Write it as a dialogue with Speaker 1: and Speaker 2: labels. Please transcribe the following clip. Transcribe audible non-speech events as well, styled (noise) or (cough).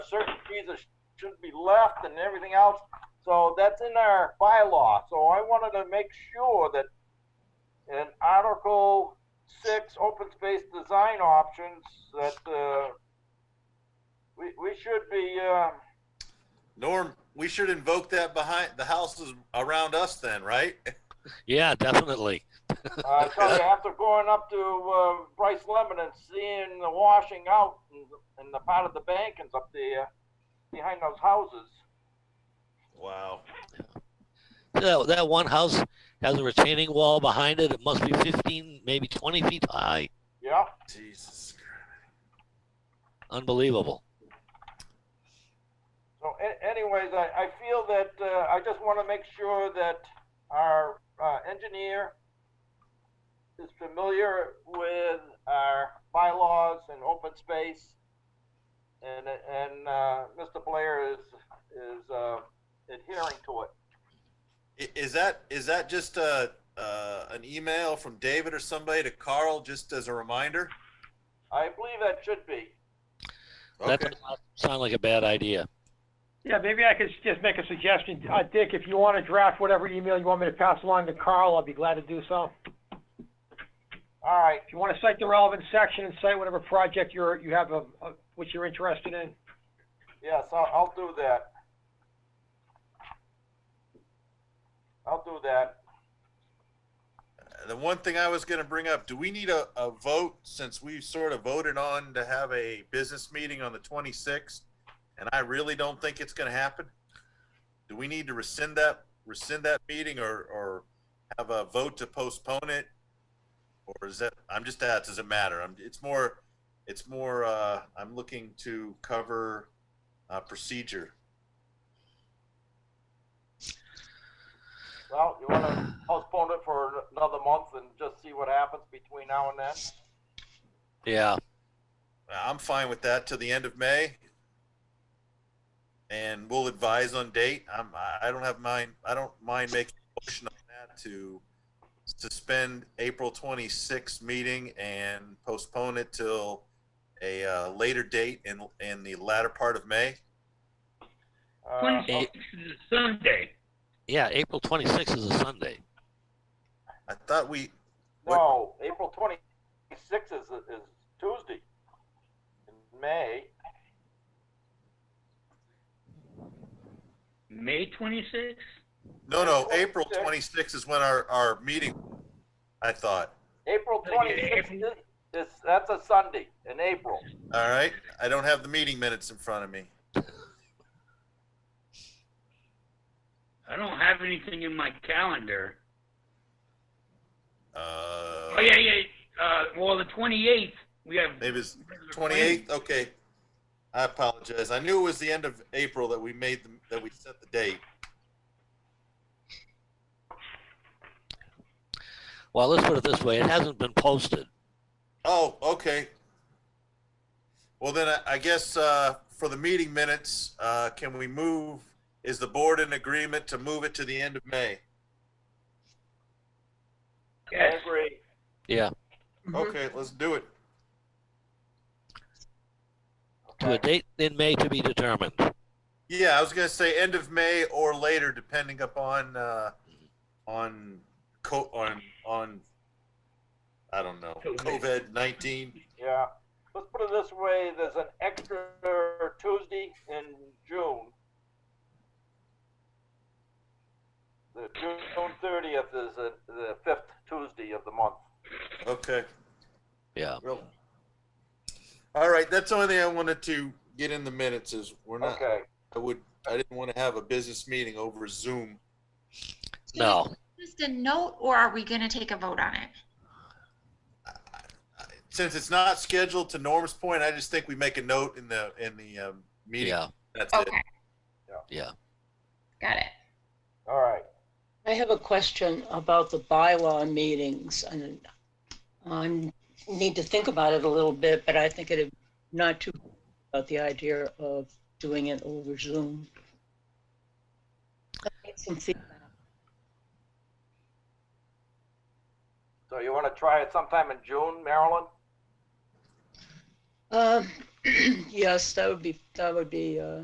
Speaker 1: certain fees that should be left and everything else. So that's in our bylaw. So I wanted to make sure that in Article six, open space design options, that, uh, we, we should be, uh,
Speaker 2: Norm, we should invoke that behind the houses around us then, right?
Speaker 3: Yeah, definitely.
Speaker 1: I tell you, uh, after going up to uh, Bryce Lemon and seeing the washing out in, in the part of the bankings up there behind those houses.
Speaker 2: Wow.
Speaker 3: That, that one house has a retaining wall behind it. It must be 15, maybe 20 feet high.
Speaker 1: Yeah.
Speaker 2: Jesus.
Speaker 3: Unbelievable.
Speaker 1: So, a- anyways, I, I feel that uh, I just want to make sure that our uh, engineer is familiar with our bylaws and open space, and and uh, Mr. Blair is is uh, adhering to it.
Speaker 2: I- Is that, is that just a, uh, an email from David or somebody to Carl, just as a reminder?
Speaker 1: I believe that should be.
Speaker 3: That
Speaker 2: Okay.
Speaker 3: does not sound like a bad idea.
Speaker 4: Yeah, maybe I could just make a suggestion. Uh, Dick, if you want to draft whatever email you want me to pass along to Carl, I'll be glad to do so.
Speaker 1: All right.
Speaker 4: If you want to cite the relevant section and cite whatever project you're, you have, of of which you're interested in.
Speaker 1: Yes, I'll, I'll do that. I'll do that.
Speaker 2: The one thing I was gonna bring up, do we need a, a vote, since we sort of voted on to have a business meeting on the twenty-sixth? And I really don't think it's gonna happen. Do we need to rescind that, rescind that meeting or, or have a vote to postpone it? Or is that, I'm just, that doesn't matter. I'm, it's more, it's more, uh, I'm looking to cover, uh, procedure.
Speaker 1: Well, you want to postpone it for another month and just see what happens between now and then?
Speaker 3: Yeah.
Speaker 2: I'm fine with that till the end of May. And we'll advise on date. I'm, I I don't have mind, I don't mind making a motion on that to suspend April twenty-sixth meeting and postpone it till a, uh, later date in, in the latter part of May.
Speaker 1: Uh,
Speaker 3: Eh,
Speaker 5: Twenty-sixth is a Sunday.
Speaker 3: Yeah, April 26th is a Sunday.
Speaker 2: I thought we,
Speaker 1: No, April twenty-sixth is, is Tuesday. In May,
Speaker 5: May twenty-sixth?
Speaker 2: no, no, April twenty-sixth is when our, our meeting, I thought.
Speaker 1: April twenty-sixth is, is, that's a Sunday in April.
Speaker 2: All right, I don't have the meeting minutes in front of me.
Speaker 5: I don't have anything in my calendar.
Speaker 2: Uh,
Speaker 5: Oh, yeah, yeah, uh, well, the twenty-eighth, we have.
Speaker 2: maybe it's Twenty-eighth, okay. I apologize. I knew it was the end of April that we made, the- that we set the date.
Speaker 3: Well, let's put it this way. It hasn't been posted.
Speaker 2: Oh, okay. Well, then I, I guess, uh, for the meeting minutes, uh, can we move, is the board in agreement to move it to the end of May?
Speaker 1: I
Speaker 5: Yes,
Speaker 1: agree.
Speaker 3: Yeah.
Speaker 2: Okay, let's do it.
Speaker 3: To a
Speaker 1: Okay.
Speaker 3: date in May to be determined.
Speaker 2: Yeah, I was gonna say end of May or later, depending upon, uh, on co, on, on, I don't know,
Speaker 5: COVID.
Speaker 2: COVID nineteen.
Speaker 1: Yeah, let's put it this way, there's an extra Tuesday in June. The June thirtieth is the, the fifth Tuesday of the month.
Speaker 2: Okay.
Speaker 3: Yeah.
Speaker 2: Really? All right, that's the only thing I wanted to get in the minutes is we're not,
Speaker 1: Okay,
Speaker 2: I would, I didn't want to have a business meeting over Zoom.
Speaker 6: So
Speaker 3: No.
Speaker 6: is it Just a note, or are we gonna take a vote on it?
Speaker 2: Since it's not scheduled to Norm's point, I just think we make a note in the, in the, um, meeting.
Speaker 3: Yeah.
Speaker 2: That's it.
Speaker 6: Okay.
Speaker 3: Yeah.
Speaker 6: Got it.
Speaker 1: all right.
Speaker 7: I have a question about the bylaw meetings, and I need to think about it a little bit, but I think it not too, about the idea of doing it over Zoom. I'll get some feedback.
Speaker 1: So you want to try it sometime in June, Marilyn?
Speaker 7: Um, (clears throat) Yes, that would be, that would be, uh,